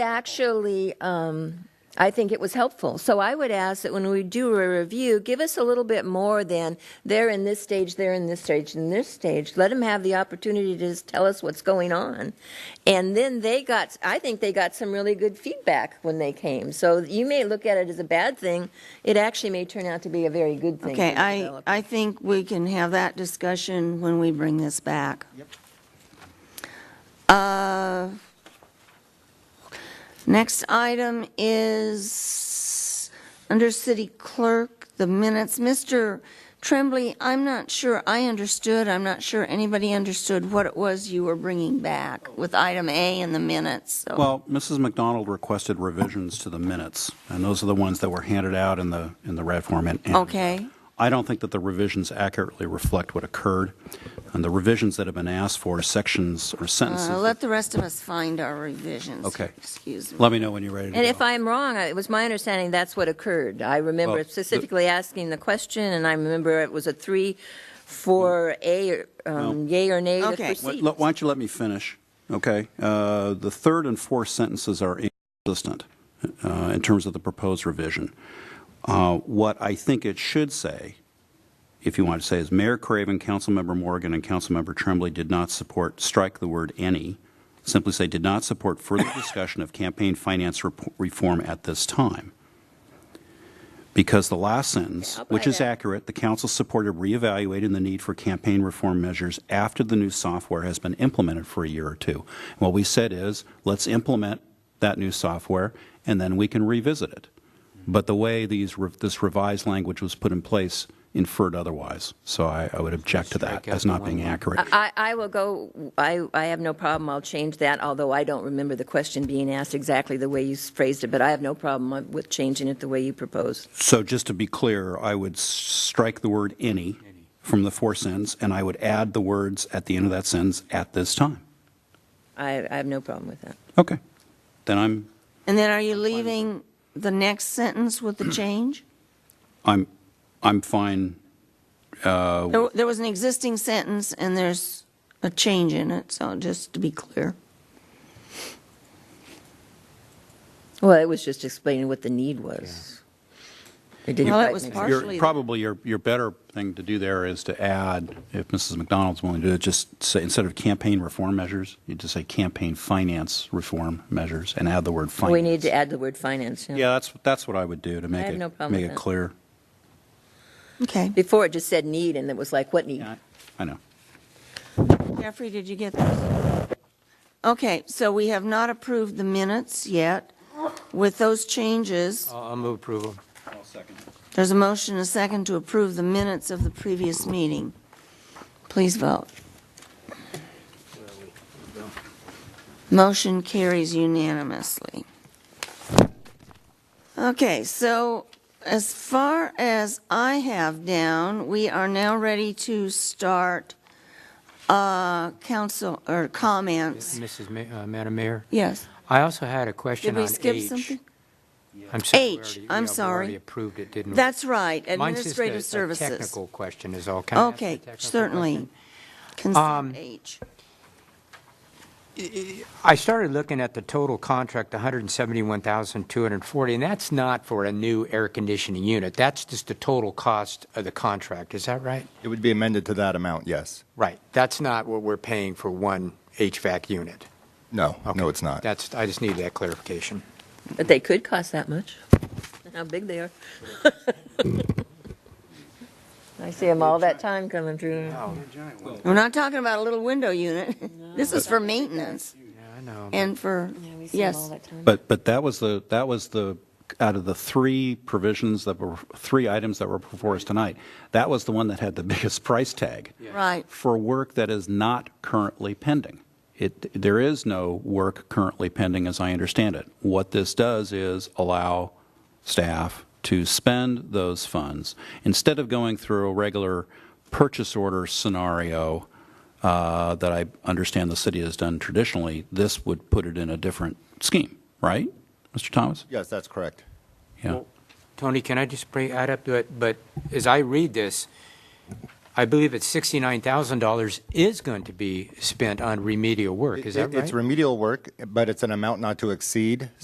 actually, um, I think it was helpful. So I would ask that when we do a review, give us a little bit more than they're in this stage, they're in this stage, and this stage. Let them have the opportunity to just tell us what's going on. And then they got, I think they got some really good feedback when they came. So you may look at it as a bad thing. It actually may turn out to be a very good thing. Okay, for the I, developer. I think we can have that discussion when we bring this back. Uh, Next item is, under city clerk, the minutes. Mr. Tremblay, I'm not sure I understood, I'm not sure anybody understood what it was you were bringing back with item A in the minutes, so. Well, Mrs. McDonald requested revisions to the minutes, and those are the ones that were handed out in the, in the red form. and- and Okay. I don't think that the revisions accurately reflect what occurred, and the revisions that have been asked for are sections or sentences. Uh, Let the rest of us find our revisions. Okay. Excuse me. Let me know when you're ready to go. And if I'm wrong, I- it was my understanding that's what occurred. I remember Well, the- specifically asking the question, and I remember it was a three, four, a, um, yea or nay to Okay. Why proceed. why don't you let me finish, okay? Uh, The third and fourth sentences are inconsistent uh, in terms of the proposed revision. Uh, What I think it should say, if you want to say, is Mayor Craven, Councilmember Morgan, and Councilmember Tremblay did not support, strike the word "any," simply say, "did not support further discussion of campaign finance rep- reform at this time." Because the last sentence, I'll buy which is that. accurate, the council supported reevaluating the need for campaign reform measures after the new software has been implemented for a year or two. What we said is, let's implement that new software, and then we can revisit it. But the way these, re- this revised language was put in place inferred otherwise. So I, I would object to that Strike out as the not one being line. accurate. I, I will go, I, I have no problem, I'll change that, although I don't remember the question being asked exactly the way you phrased it, but I have no problem with changing it the way you proposed. So just to be clear, I would s- strike the word "any" from the fourth sentence, and I would add the words at the end of that sentence, "at this time." I, I have no problem with that. Okay. Then I'm, And then are you leaving the next sentence with the change? I'm, I'm fine. There, there was an existing sentence and there's a change in it, so just to be clear. Well, it was just explaining what the need was. It didn't Well, it quite was make part- sense. Your, Partially. probably your, your better thing to do there is to add, if Mrs. McDonald's willing to do it, just say, instead of campaign reform measures, you just say campaign finance reform measures and add the word finance. We need to add the word finance, yeah. Yeah, that's, that's what I would do to make have no it, problem make with it that. clear. Okay. Before it just said need, and it was like, what need? Yeah, I know. Mm-hmm. Jeffrey, did you get those? Okay, so we have not approved the minutes yet. With those changes, I'll I'll move approval. there's a motion, and a second, to approve the minutes of the previous meeting. Please vote. Motion carries unanimously. Okay, so as far as I have down, we are now ready to start uh, council, or comments. Mrs. Ma- uh, Madam Mayor, Yes. I also had a Did question we on H. skip something? I'm sorry, we H, already- I'm yeah, we sorry. already approved it, didn't we? That's right, Mine's just a- administrative a services. technical question is all. Can I ask a Okay, technical certainly. question? Um, Consent H. I started looking at the total contract, 171,240, and that's not for a new air conditioning unit. That's just the total cost of the contract. Is that right? It would be amended to that amount, yes. Right. That's not what we're paying for one HVAC unit. No, Okay. no, it's not. That's, I just need that clarification. But they could cost that much. And How big they are. I see them all that time coming through. We're not talking about a little window unit. This is for maintenance Yeah, I know. and for, yes. But, but that was the, that was the, out of the three provisions that were, three items that were before us tonight, that was the one that had the biggest price tag. Right. for work that is not currently pending. It, there is no work currently pending, as I understand it. What this does is allow staff to spend those funds instead of going through a regular purchase order scenario uh, that I understand the city has done traditionally. This would put it in a different scheme, right, Mr. Thomas? Yes, that's correct. Yeah. Tony, can I just bring, add up to it, but as I read this, I believe it's $69,000 is going to be spent on remedial work. Is that It- right? It's remedial work, but it's an amount not to exceed